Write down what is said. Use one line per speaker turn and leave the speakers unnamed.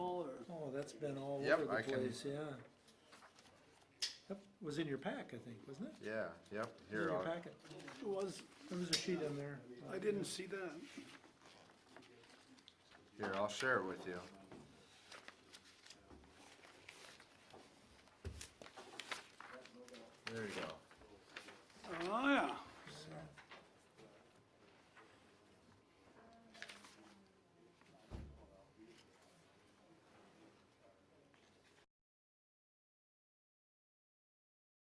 Oh, that's been all
Yep,
over
I
the
can-
place, yeah. That was in your pack, I think, wasn't it?
Yeah, yep,
It was
here,
In your
I'll-
packet. It was, there was a sheet in there.
I didn't see that.
here, I'll share it with you. There you go.
Oh,